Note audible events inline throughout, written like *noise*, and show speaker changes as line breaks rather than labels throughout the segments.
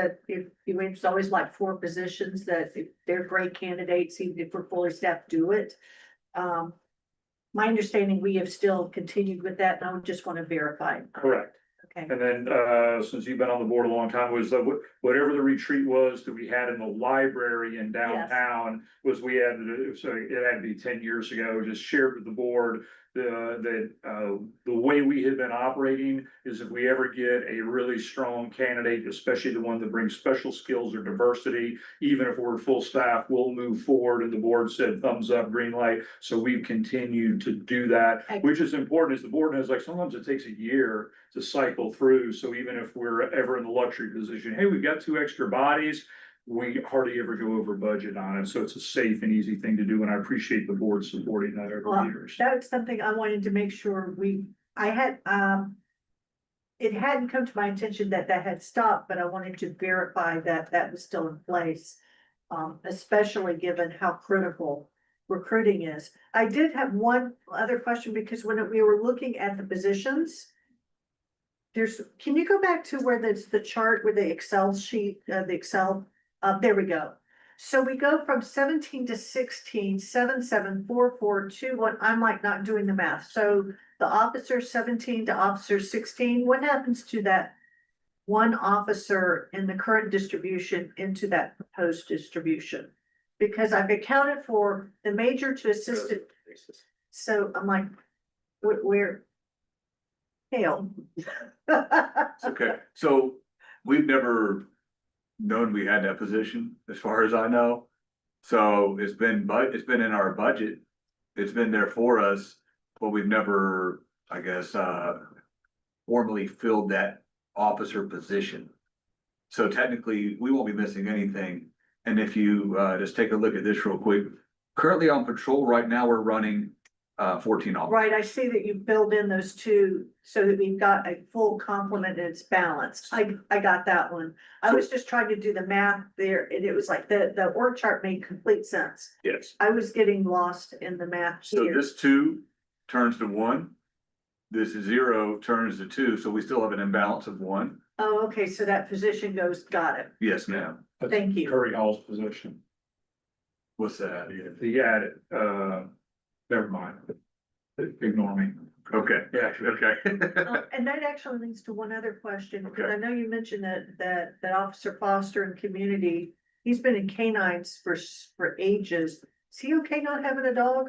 that if, you know, it's always like four positions that if they're great candidates, even if we're fully staffed, do it. Um, my understanding, we have still continued with that, and I would just want to verify.
Correct.
Okay,
And then, uh, since you've been on the board a long time, was that wh- whatever the retreat was that we had in the library in downtown was we had, to- so it had to be ten years ago, just shared with the board the, the, uh, the way we had been operating is if we ever get a really strong candidate, especially the one that brings special skills or diversity, even if we're full staff, we'll move forward. And the board said thumbs up, green light. So we've continued to do that, which is important is the board knows like sometimes it takes a year to cycle through. So even if we're ever in the luxury position, hey, we've got two extra bodies. We hardly ever go over budget on it. So it's a safe and easy thing to do. And I appreciate the board supporting that over
Well,
the years.
that's something I wanted to make sure we, I had, um. It hadn't come to my attention that that had stopped, but I wanted to verify that that was still in place. Um, especially given how critical recruiting is. I did have one other question because when we were looking at the positions. There's, can you go back to where there's the chart where the Excel sheet, uh, the Excel, uh, there we go. So we go from seventeen to sixteen, seven, seven, four, four, two, one, I'm like not doing the math, so the officer seventeen to officer sixteen, what happens to that? One officer in the current distribution into that proposed distribution? Because I've accounted for the major to assistant, so I'm like, where, where? Hell. *laughs*
Okay, so we've never known we had that position, as far as I know. So it's been, but it's been in our budget. It's been there for us, but we've never, I guess, uh, formally filled that officer position. So technically, we won't be missing anything. And if you, uh, just take a look at this real quick, currently on patrol right now, we're running, uh, fourteen officers.
Right, I see that you build in those two so that we've got a full complement and it's balanced. I, I got that one. I was just trying to do the math there and it was like the, the org chart made complete sense.
Yes.
I was getting lost in the math
So
here.
this two turns to one. This zero turns to two, so we still have an imbalance of one.
Oh, okay, so that position goes, got it.
Yes, ma'am.
Thank you.
Curry Hall's position.
What's that?
He had it, uh, never mind. Ignore me.
Okay,
Yeah,
okay. *laughs*
Um, And that actually leads to one other question, because
Okay.
I know you mentioned that, that, that Officer Foster and community, he's been in canines for, s- for ages. Is he okay not having a dog?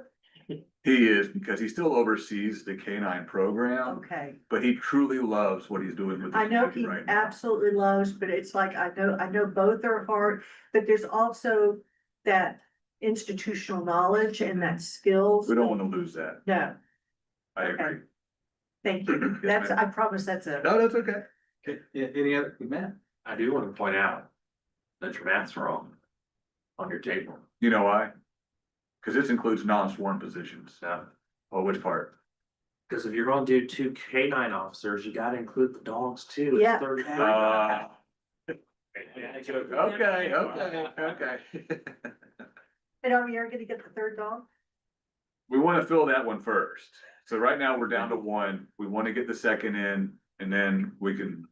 He is, because he still oversees the K nine program,
Okay.
but he truly loves what he's doing with. the
I know
community
he
right now.
absolutely loves, but it's like, I know, I know both are hard, but there's also that institutional knowledge and that skills.
We don't want to lose that.
No,
I
Okay.
agree.
thank you.
Yes,
That's,
ma'am.
I promise that's a,
No, that's okay.
Okay, a- any other, Matt? I do want to point out that your math's wrong on your table.
You know why? Because this includes non-sworn positions.
So,
Oh, which part?
because if you're gonna do two K nine officers, you gotta include the dogs too.
Yeah.
Uh,
Okay,
okay, okay, okay. *laughs*
and are we ever gonna get the third dog?
We wanna fill that one first. So right now, we're down to one. We wanna get the second in and then we can,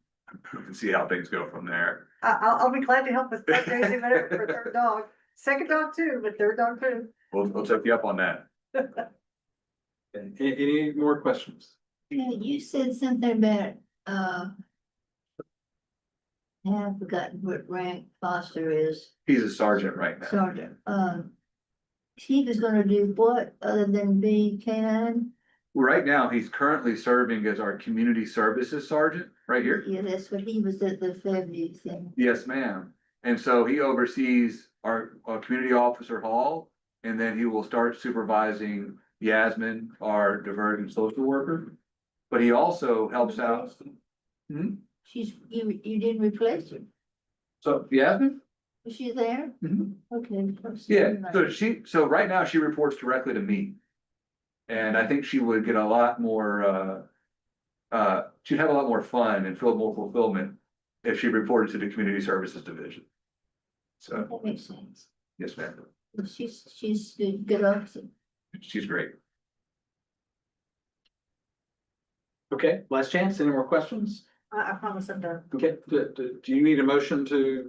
we can see how things go from there.
I, I'll, I'll be glad to help with fundraising, whatever, for third dog. Second dog too, but third dog too.
We'll, we'll take you up on that.
Any, any more questions?
Yeah, you said something about, uh. I have forgotten what rank Foster is,
He's a sergeant right now.
Sergeant, um. He was gonna do what other than be canine?
Right now, he's currently serving as our community services sergeant right here.
Yeah, that's what he was at the Fairview thing.
Yes, ma'am. And so he oversees our, uh community officer hall. And then he will start supervising Yasmin, our divergent social worker. But he also helps out. Hmm?
She's, you, you didn't replace her,
So Yasmin?
was she there?
Mhm.
Okay.
Yeah, so she, so right now she reports directly to me. And I think she would get a lot more, uh. Uh, she'd have a lot more fun and feel more fulfillment if she reported to the community services division. So,
That makes sense,
yes, ma'am,
she's, she's a good officer.
she's great.
Okay, last chance, any more questions?
I, I promise I'm done.
Okay, do, do, do you need a motion to